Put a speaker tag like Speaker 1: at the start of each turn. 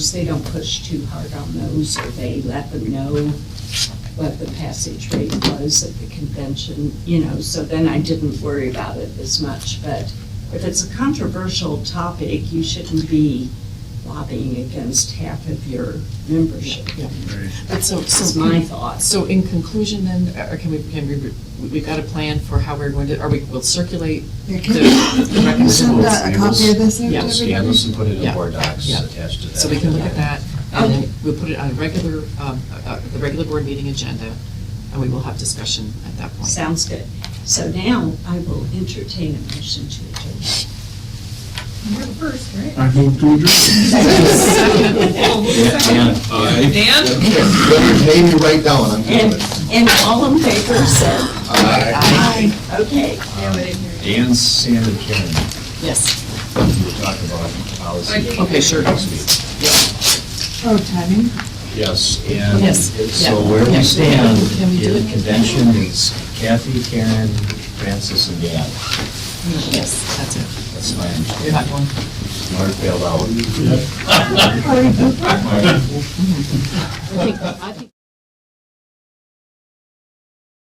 Speaker 1: They don't push too hard on those, or they let them know what the passage rate was at the convention, you know, so then I didn't worry about it as much. But if it's a controversial topic, you shouldn't be lobbying against half of your membership.
Speaker 2: But so,
Speaker 1: This is
Speaker 2: so,
Speaker 1: my thoughts.
Speaker 2: so in conclusion then, uh, can we, can we, we- we've got a plan for how we're going to, or we will circulate
Speaker 3: Yeah,
Speaker 2: the
Speaker 3: Can you
Speaker 2: the
Speaker 3: can you send
Speaker 2: recommendations.
Speaker 3: a a copy of this out to
Speaker 2: Yeah.
Speaker 3: everybody?
Speaker 4: Scan this and put it
Speaker 2: Yeah.
Speaker 4: in Word docs
Speaker 2: Yeah.
Speaker 4: attached to that.
Speaker 2: So we can look at that, and then we'll put it on a regular, um, uh, uh, the regular board meeting agenda, and we will have discussion at that point.
Speaker 1: Sounds good. So now I will entertain a motion to adjourn.
Speaker 5: I move to adjourn.
Speaker 4: Dan, aye.
Speaker 6: Name you right down, I'm
Speaker 1: And,
Speaker 6: doing it.
Speaker 1: and all in favor said
Speaker 4: uh,
Speaker 1: aye. Okay.
Speaker 4: Dan, Sam, and Karen,
Speaker 2: Yes,
Speaker 4: we were talking about policy.
Speaker 2: okay, sure.
Speaker 3: Oh, timing.
Speaker 4: Yes, and
Speaker 2: Yes,
Speaker 4: so
Speaker 2: yeah.
Speaker 4: where
Speaker 2: Yeah.
Speaker 4: we stand
Speaker 2: Can we do
Speaker 4: in
Speaker 2: it?
Speaker 4: convention is Kathy, Karen, Francis, and Dan.
Speaker 2: Yes, that's it.
Speaker 4: That's my,
Speaker 2: You're not going.
Speaker 4: Mark bailed out.
Speaker 1: I think, I think